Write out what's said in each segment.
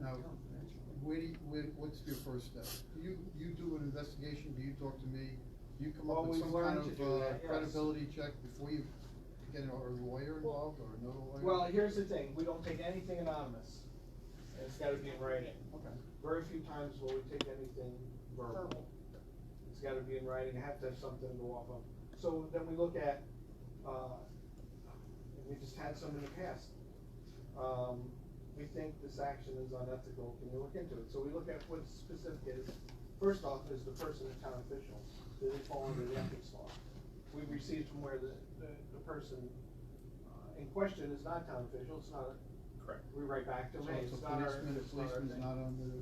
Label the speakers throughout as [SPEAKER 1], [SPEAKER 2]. [SPEAKER 1] Now, where do you, where, what's your first step? You, you do an investigation, do you talk to me? Do you come up with
[SPEAKER 2] Always
[SPEAKER 1] some
[SPEAKER 2] learn
[SPEAKER 1] kind
[SPEAKER 2] to
[SPEAKER 1] of
[SPEAKER 2] do
[SPEAKER 1] uh,
[SPEAKER 2] that, yes.
[SPEAKER 1] credibility check before you get a a lawyer involved or no lawyer?
[SPEAKER 2] Well, here's the thing, we don't take anything anonymous. It's gotta be in writing.
[SPEAKER 1] Okay.
[SPEAKER 2] Very few times will we take anything verbal.
[SPEAKER 3] Verbal.
[SPEAKER 2] It's gotta be in writing, I have to have something to go off of. So then we look at, uh, we just had some in the past. Um, we think this action is unethical, can you look into it? So we look at what specific is, first off, is the person a town official? Do they fall under the ethics law? We received from where the, the, the person uh, in question is not town official, it's not, a-
[SPEAKER 4] Correct.
[SPEAKER 2] we write back to
[SPEAKER 1] So
[SPEAKER 2] me,
[SPEAKER 1] it's
[SPEAKER 2] it's
[SPEAKER 1] a
[SPEAKER 2] not our.
[SPEAKER 1] policeman, a
[SPEAKER 2] it's not our
[SPEAKER 1] policeman's
[SPEAKER 2] thing.
[SPEAKER 1] not under,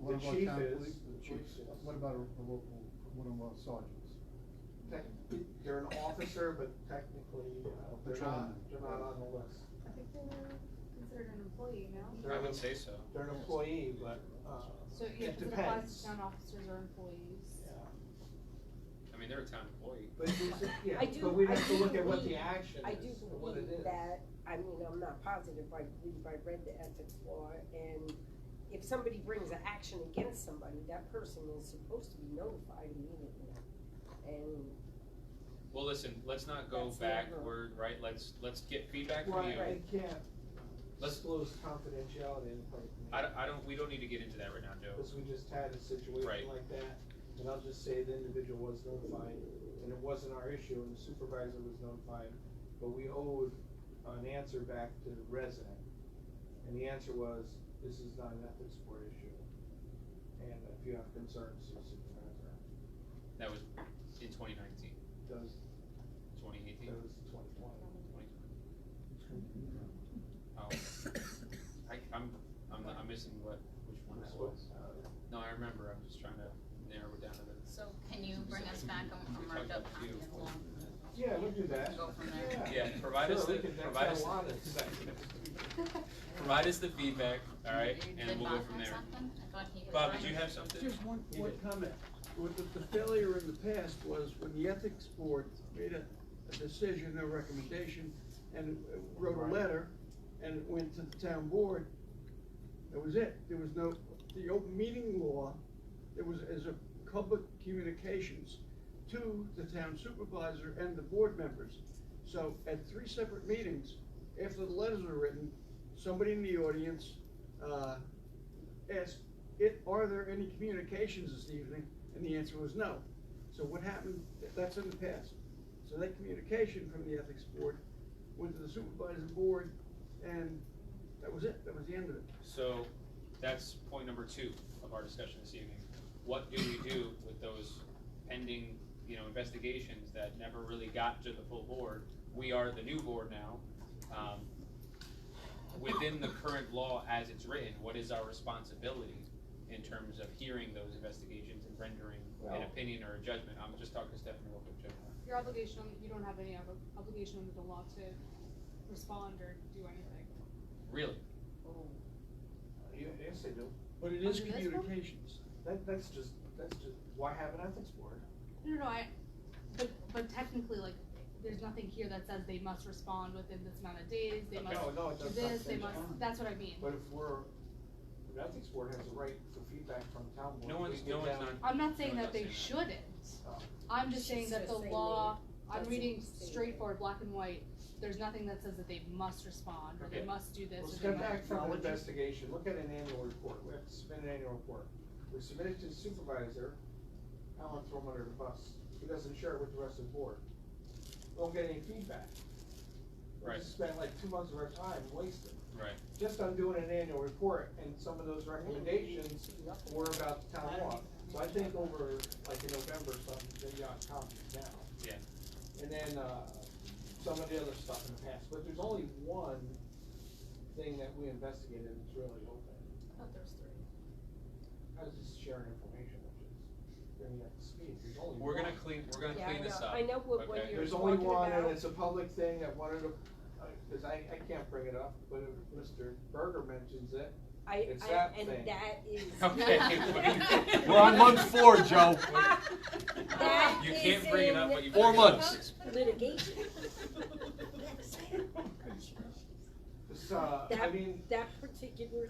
[SPEAKER 1] what
[SPEAKER 2] The
[SPEAKER 1] about
[SPEAKER 2] chief
[SPEAKER 1] town
[SPEAKER 2] is,
[SPEAKER 1] police?
[SPEAKER 2] the
[SPEAKER 1] What-
[SPEAKER 2] chief is.
[SPEAKER 1] What about a a local, one of our sergeants?
[SPEAKER 2] Technically, They're an officer, but technically, uh, they're
[SPEAKER 1] Patrolman.
[SPEAKER 2] not, they're not on the list.
[SPEAKER 3] I think they were considered an employee, no?
[SPEAKER 2] They're
[SPEAKER 4] I
[SPEAKER 2] an-
[SPEAKER 4] would say so.
[SPEAKER 2] They're an employee, but, uh,
[SPEAKER 3] So, yeah,
[SPEAKER 2] it
[SPEAKER 3] because it applies
[SPEAKER 2] depends.
[SPEAKER 3] to town officers or employees.
[SPEAKER 2] Yeah.
[SPEAKER 4] I mean, they're a town employee.
[SPEAKER 2] But it's- yeah,
[SPEAKER 5] I do-
[SPEAKER 2] but we
[SPEAKER 5] I
[SPEAKER 2] have to
[SPEAKER 5] do
[SPEAKER 2] look at what the
[SPEAKER 5] believe-
[SPEAKER 2] action
[SPEAKER 5] I do
[SPEAKER 2] is, and what it is.
[SPEAKER 5] believe that, I mean, I'm not positive, but I believe I read the ethics law, and if somebody brings an action against somebody, that person is supposed to be notified immediately. And,
[SPEAKER 4] Well, listen, let's not go
[SPEAKER 5] That's the rule.
[SPEAKER 4] backward, right? Let's, let's get feedback from you.
[SPEAKER 2] Right, I can't
[SPEAKER 4] Let's-
[SPEAKER 2] disclose confidentiality in public.
[SPEAKER 4] I don't, I don't, we don't need to get into that right now, Joe.
[SPEAKER 2] Because we just had a
[SPEAKER 4] Right.
[SPEAKER 2] situation like that, and I'll just say the individual was notified, and it wasn't our issue, and the supervisor was notified, but we owed an answer back to the resident. And the answer was, this is not an ethics board issue, and if you have concerns, see supervisor.
[SPEAKER 4] That was in 2019,
[SPEAKER 2] That was,
[SPEAKER 4] 2018,
[SPEAKER 2] that was twenty twenty.
[SPEAKER 4] 2020. Oh, I, I'm, I'm, not- I'm missing what, which one that was. No, I remember, I'm just trying to narrow it down to the.
[SPEAKER 6] So can you bring us back a, a
[SPEAKER 4] We
[SPEAKER 6] marked
[SPEAKER 4] talked
[SPEAKER 6] up
[SPEAKER 4] about
[SPEAKER 6] copy
[SPEAKER 4] you.
[SPEAKER 6] of the
[SPEAKER 2] Yeah, we'll do that.
[SPEAKER 6] Go from there.
[SPEAKER 4] Yeah, provide us
[SPEAKER 2] Sure, we
[SPEAKER 4] the-
[SPEAKER 2] can- that's
[SPEAKER 4] provide
[SPEAKER 2] got
[SPEAKER 4] us
[SPEAKER 2] a
[SPEAKER 4] the-
[SPEAKER 2] lot of-
[SPEAKER 4] Provide us the feedback, all right,
[SPEAKER 6] Did
[SPEAKER 4] and we'll go
[SPEAKER 6] Bob
[SPEAKER 4] from
[SPEAKER 6] have
[SPEAKER 4] there.
[SPEAKER 6] something? I thought he was
[SPEAKER 4] Bob,
[SPEAKER 6] right.
[SPEAKER 4] did you have something?
[SPEAKER 7] Just one,
[SPEAKER 2] You
[SPEAKER 7] one
[SPEAKER 2] did.
[SPEAKER 7] comment. With the, the failure in the past was when the ethics board made a, a decision, a recommendation, and uh, wrote
[SPEAKER 2] Right.
[SPEAKER 7] a letter, and it went to the town board. That was it. There was no, the open meeting law, there was, as a public communications to the town supervisor and the board members. So at three separate meetings, after the letters were written, somebody in the audience, uh, asked, it, are there any communications this evening? And the answer was no. So what happened, that's in the past. So that communication from the ethics board went to the supervisor's board, and that was it, that was the end of it.
[SPEAKER 4] So that's point number two of our discussion this evening. What do we do with those pending, you know, investigations that never really got to the full board? We are the new board now. Um, Within the current law as it's written, what is our responsibility in terms of hearing those investigations and rendering an
[SPEAKER 2] Well-
[SPEAKER 4] opinion or a judgment? I'm just talking to Stephanie real quick, Joe.
[SPEAKER 3] Your obligation, you don't have any ob- obligation under the law to respond or do anything.
[SPEAKER 4] Really?
[SPEAKER 2] Uh, You- Yes, they do.
[SPEAKER 7] But it is
[SPEAKER 3] Under this one?
[SPEAKER 7] communications.
[SPEAKER 2] That, that's just, that's just, why have an ethics board?
[SPEAKER 3] No, no, I, but, but technically, like, there's nothing here that says they must respond within this amount of days, they
[SPEAKER 4] Okay.
[SPEAKER 3] must
[SPEAKER 2] No, no, it
[SPEAKER 3] do
[SPEAKER 2] does not
[SPEAKER 3] this,
[SPEAKER 2] say
[SPEAKER 3] they must,
[SPEAKER 2] that.
[SPEAKER 3] that's what I mean.
[SPEAKER 2] But if we're, the ethics board has a right for feedback from the town board.
[SPEAKER 4] No
[SPEAKER 2] We
[SPEAKER 4] one's,
[SPEAKER 2] give
[SPEAKER 4] no one's
[SPEAKER 2] them-
[SPEAKER 4] not
[SPEAKER 3] I'm not saying
[SPEAKER 4] No, it
[SPEAKER 3] that they
[SPEAKER 4] doesn't.
[SPEAKER 3] shouldn't,
[SPEAKER 2] Oh.
[SPEAKER 3] I'm just saying
[SPEAKER 5] She's
[SPEAKER 3] that the
[SPEAKER 5] just saying
[SPEAKER 3] law, I'm
[SPEAKER 5] doesn't
[SPEAKER 3] reading
[SPEAKER 5] say
[SPEAKER 3] straightforward, black and white, there's nothing that says that they must respond, or they
[SPEAKER 4] Okay.
[SPEAKER 3] must do
[SPEAKER 2] Well,
[SPEAKER 3] this, or they
[SPEAKER 2] step
[SPEAKER 3] must.
[SPEAKER 2] back from the
[SPEAKER 7] acknowledge it.
[SPEAKER 2] investigation, look at an annual report, we have to submit an annual report. We submit it to the supervisor, I don't wanna throw him under the bus, he doesn't share it with the rest of the board. We Don't get any feedback. We
[SPEAKER 4] Right.
[SPEAKER 2] just spent like two months of our time wasted,
[SPEAKER 4] right.
[SPEAKER 2] just on doing an annual report, and some of those recommendations were about the town law. So I think over, like in November, or something, maybe on conference now.
[SPEAKER 4] Yeah.
[SPEAKER 2] And then, uh, some of the other stuff in the past, but there's only one thing that we investigated that's really open.
[SPEAKER 6] I thought there was three.
[SPEAKER 2] I was just sharing information, which is, bringing up to speed, there's only one.
[SPEAKER 4] We're gonna clean, we're gonna
[SPEAKER 5] Yeah, I
[SPEAKER 4] clean this
[SPEAKER 5] know-
[SPEAKER 4] up.
[SPEAKER 5] I know what- what
[SPEAKER 4] okay?
[SPEAKER 5] you're-
[SPEAKER 2] There's only
[SPEAKER 5] talking
[SPEAKER 2] one, and
[SPEAKER 5] about-
[SPEAKER 2] it's a public thing that one of the, uh, cause I, I can't bring it up, but if Mr. Berger mentions it,
[SPEAKER 5] I,
[SPEAKER 2] It's
[SPEAKER 5] I,
[SPEAKER 2] that
[SPEAKER 5] and
[SPEAKER 2] thing.
[SPEAKER 5] that is.
[SPEAKER 4] Okay.
[SPEAKER 8] We're on month four, Joe.
[SPEAKER 5] That
[SPEAKER 4] You
[SPEAKER 5] is
[SPEAKER 4] can't bring it up,
[SPEAKER 5] in
[SPEAKER 4] but you.
[SPEAKER 8] Four
[SPEAKER 4] bring it up.
[SPEAKER 8] months.
[SPEAKER 5] Litigation.
[SPEAKER 2] this, uh, I
[SPEAKER 5] That-
[SPEAKER 2] mean, uh,
[SPEAKER 5] That particular